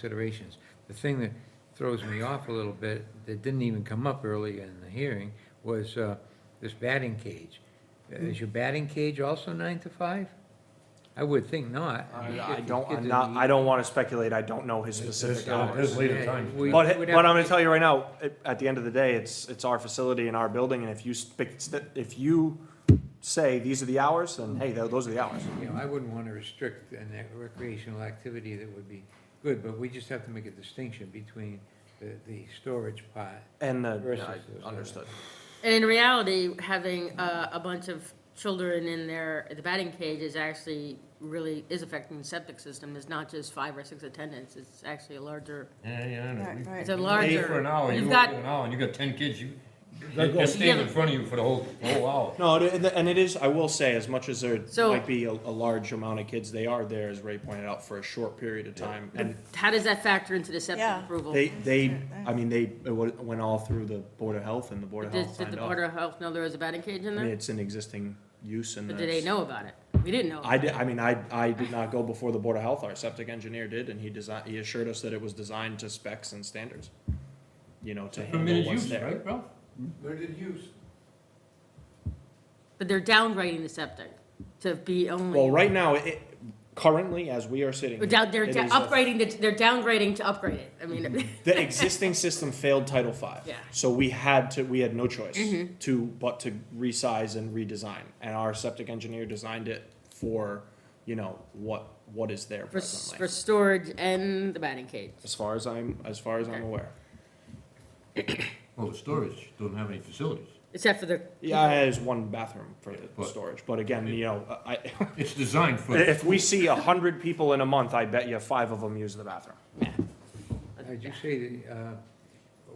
considerations. The thing that throws me off a little bit, that didn't even come up early in the hearing, was uh, this batting cage. Is your batting cage also nine to five? I would think not. mean, I I if you don't, get I'm to not, the- I don't wanna speculate, I don't know his It's- specific it's not- hours. His lead Yeah, time. we- But, we'd but have I'm to gonna get- tell you right now, at, at the end of the day, it's, it's our facility and our building, and if you spec, if you say, these are the hours, then hey, tho- those are the hours. You know, I wouldn't want to restrict an ac- recreational activity that would be good, but we just have to make a distinction between the, the storage part. And the, Versus I those are- understood. And in reality, having uh, a bunch of children in their, the batting cage is actually really, is affecting the septic system. It's not just five or six attendants, it's actually a larger, Yeah, yeah, I know. Right, We- right. it's a Eight for an larger. hour, you You've go got- for an hour, and you got ten kids, you, They're they're going- standing in front of you for the whole, whole hour. No, it- and and it is, I will say, as much as there So- might be a, a large amount of kids, they are there, as Ray pointed out, for a short period of time. And How does that factor into the septic Yeah. approval? they, Did they, I mean, they, it wa- went all through the Board of Health, and the Board of Health did signed the off. Board of Health know there was a batting cage in I mean, there? it's an existing use and But did they that's- know about it? We didn't know. I did, I mean, I, I did not go before the Board of Health, our septic engineer did, and he designed, he assured us that it was designed to specs and standards. You know, to handle Permitted what's use, there. right, bro? Limited use. But they're downgrading the septic to be only. Well, right now, it, currently, as we are sitting. Or down- They're it down- is a- upgrading, the- they're downgrading to upgrade it. I mean, The existing system failed Title V. Yeah. Mm-hmm. So we had to, we had no choice to, but to resize and redesign. And our septic engineer designed it for, you know, what, what is there for, s- presently. for storage and the batting cage. As far as I'm, as far as I'm Okay. aware. Well, the storage doesn't have any facilities. Except for the. Yeah, there's one bathroom for the But- storage, but again, you know, I, It's designed for. if we see a hundred people in a month, I bet you five of them use the bathroom. Did you say the, uh,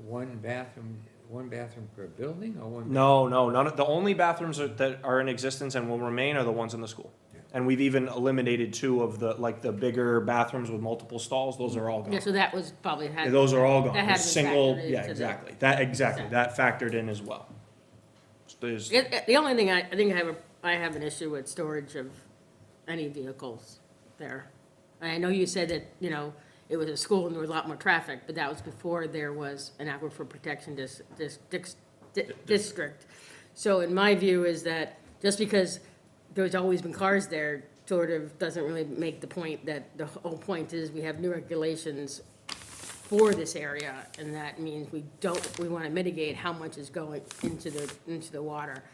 one bathroom, one bathroom per building or one? No, no, none of, the only bathrooms are, that are in existence and will remain are the ones in the school. And we've even eliminated two of the, like, the bigger bathrooms with multiple stalls, those are all Yeah, gone. so that was probably had. Those are all gone, That The had been single, factored yeah, into the- exactly, that, exactly, that factored in as well. So There's, It- it- The only thing I, I think I have, a I have an issue with storage of any vehicles there. I know you said that, you know, it was a school and there was a lot more traffic, but that was before there was an aquifer protection dis, dis, dix- di- district. So in my view is that just because there's always been cars there, sort of doesn't really make the point that, the whole point is we have new regulations for this area, and that means we don't, we want to mitigate how much is going into the, into the water.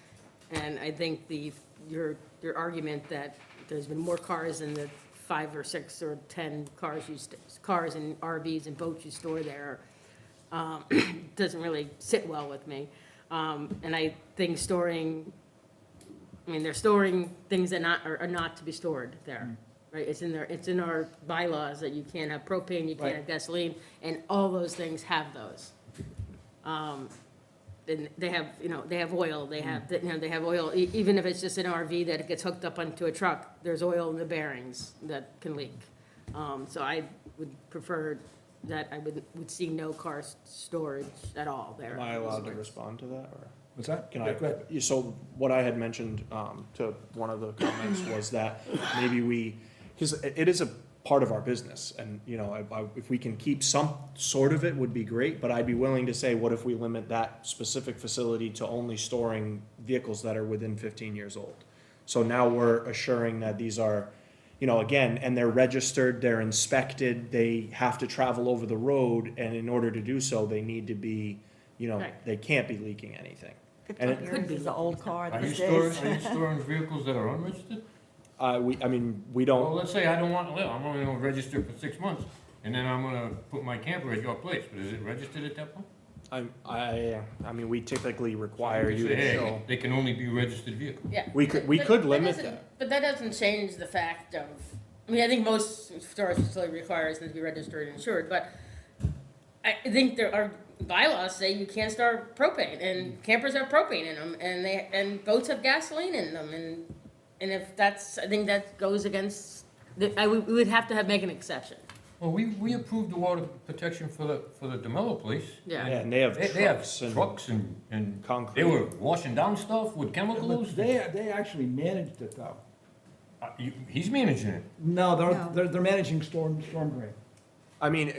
And I think the, your, your argument that there's been more cars than the five or six or 10 cars you, st- cars and RVs and boats you store there um, doesn't really sit well with me. Um, And I think storing, I mean, they're storing things that not, are are not to be stored there, right? It's in their, it's in our bylaws that you can't have propane, you can't have gasoline, and all those things have those. Um, And they have, you know, they have oil, they have, you know, they have oil, e- even if it's just an RV that gets hooked up onto a truck, there's oil in the bearings that can leak. Um, So I would prefer that I would, would see no car s- storage at all there. am I allowed to respond to that, or? What's that? Can I, Yeah, so what I had mentioned, um, to one of the comments was that maybe we, cause it, it is a part of our business and, you know, I, I, if we can keep some sort of it would be great, but I'd be willing to say, what if we limit that specific facility to only storing vehicles that are within fifteen years old? So now we're assuring that these are, you know, again, and they're registered, they're inspected, they have to travel over the road, and in order to do so, they need to be, you know, Right. they can't be leaking anything. And it- Fifteen years is an old car Are you these storing, days. are you storing vehicles that are unregistered? Uh, we, I mean, we Well, don't, let's say I don't want to live, I'm only gonna register for six months, and then I'm gonna put my camper at your place, but is it registered at that point? I, I, I mean, we typically require You you say, to hey, show. They can only be registered vehicles. Yeah. We could- we But- could but limit doesn't- that. But that doesn't change the fact of, I mean, I think most storage facility requires them to be registered and insured, but I think there are bylaws say you can't store propane, and campers have propane in them, and they, and boats have gasoline in them, and, and if that's, I think that goes against, the- I, would- we would have to have, make an exception. Well, we, we approved the water protection for the, for the DeMello place. Yeah, Yeah. and they have They, they have trucks and. trucks and, and Concrete. they were washing down stuff with chemicals. They, they actually managed it though. Uh, you- He's managing it. No, No. they're, they're, they're managing storm, storm drain. I mean,